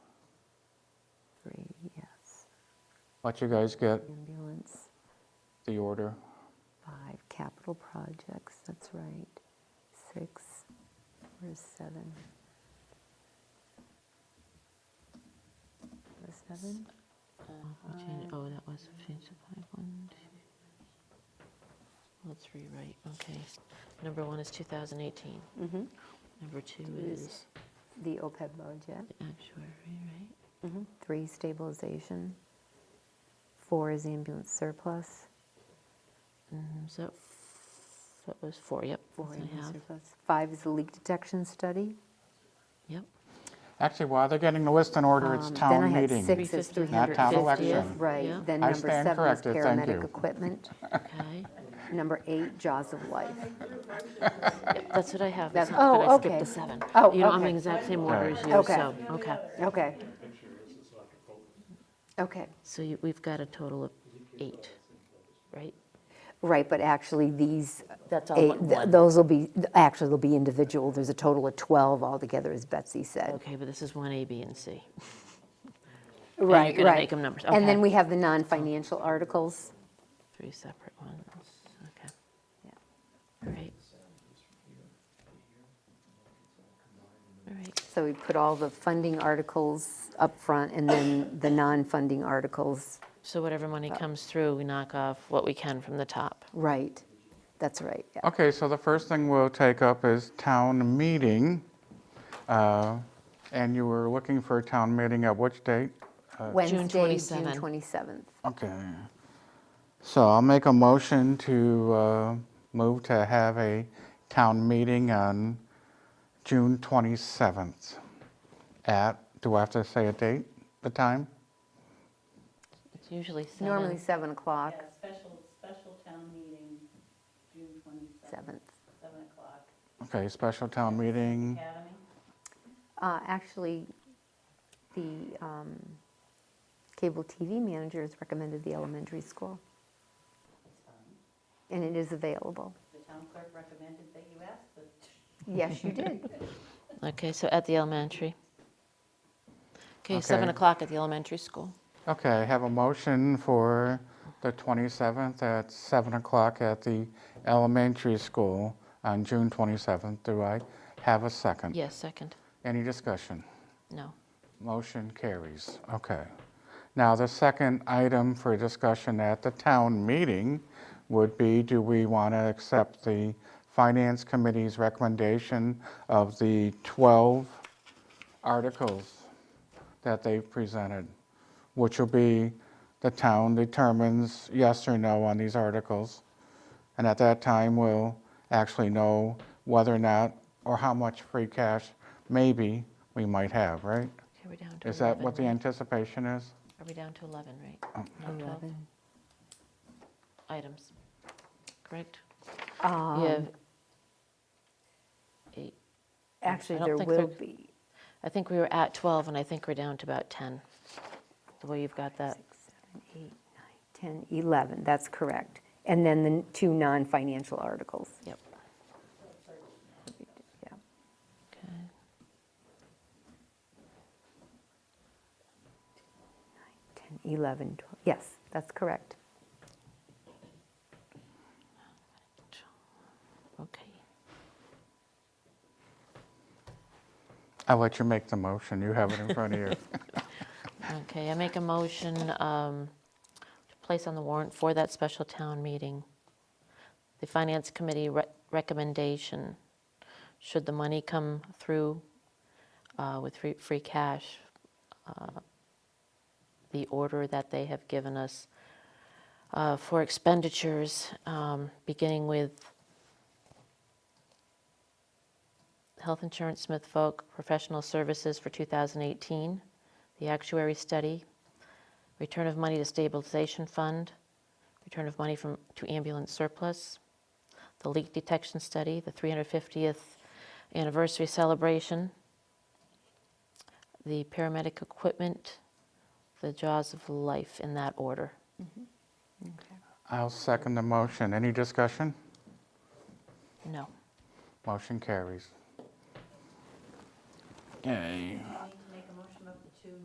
let you guys get ambulance, the order. five, capital projects, that's right, six, where's seven? Where's seven? We change- Oh, that was a change of five, one, two. Let's rewrite, okay. Number one is 2018. Mm-hmm. Number two Is- is The OPEB budget. the actuary, right? Three, stabilization. Four is ambulance surplus. Mhm, So that f- that was four, yep. that's Four what I ambulance have. surplus. Five is the leak detection study. Yep. Actually, while they're getting the list in order, it's Um, town Then I had meeting. six is 350th. 350th. Not town election. Yeah. Right, then I number stand seven is corrected, thank paramedic you. equipment. Okay. Number eight, jaws of life. That's what I have. That's- It's not that oh, I skipped okay. the seven. Oh, You know, I'm okay. in exact same order Right. as you, Okay. so, okay. Okay. Okay, So you- we've got a total of eight, right? right, but actually, these, That's all eight- but th- one. those will be, actually, they'll be individual. There's a total of 12 altogether, as Betsy said. Okay, but this is one A, B, and C. you're Right, gonna right. make 'em numbers. And Okay. then we have the non-financial articles. Three separate ones, okay. Yeah. All right. All right, So we put all the funding articles up front, and then the non-funding articles, so whatever money comes through, we knock off what we can from the top. right. That's right, yeah. Okay, so the first thing we'll take up is town meeting. Uh, And you were looking for a town meeting at which date? Uh, Wednesday, June 27. 27th. Okay. So I'll make a motion to uh, move to have a town meeting on June 27th at, do I have to say a date, the time? It's usually seven. Normally 7 o'clock, Yeah, special, special town meeting, June 27th, 7th. 7 o'clock, Okay, special town meeting. Academy. Uh, Actually, the um, cable TV manager has recommended the elementary school, It's fine. and it is available. The town clerk recommended that you ask the Yes, you did. Okay, so at the elementary. Okay, seven Okay. o'clock at the elementary school. Okay, I have a motion for the 27th at 7 o'clock at the elementary school on June 27th. Do I have a second? Yes, second. Any discussion? No. Motion carries. Okay. Now, the second item for discussion at the town meeting would be, do we want to accept the Finance Committee's recommendation of the 12 articles that they've presented, which will be, the town determines yes or no on these articles. And at that time, we'll actually know whether or not, or how much free cash maybe we might have, right? Okay, we're down to 11. Is that what the Oh. right? anticipation is? Are we down to 11, right? Not 12 Eleven. Items, correct? You Um, have eight. Actually, I don't there think will there- be. I think we were at 12, and I think we're down to about 10, the way you've got that. six, seven, eight, nine, 10, 11, that's correct. And then the two non-financial articles. Yep. Yeah. Okay. Ten, eleven, twelve. yes, that's correct. Okay. I'll let you make the motion. You have it in front of you. Okay, I make a motion um, to place on the warrant for that special town meeting, the Finance Committee re- recommendation, should the money come through uh, with free- free cash, uh, the order that they have given us uh, for expenditures, um, beginning with health insurance, Smith Folk, professional services for 2018, the actuary study, return of money to stabilization fund, return of money from, to ambulance surplus, the leak detection study, the 350th anniversary celebration, the paramedic equipment, the jaws of life, in that order. I'll second the motion. Any discussion? No. Motion carries. Okay. meeting.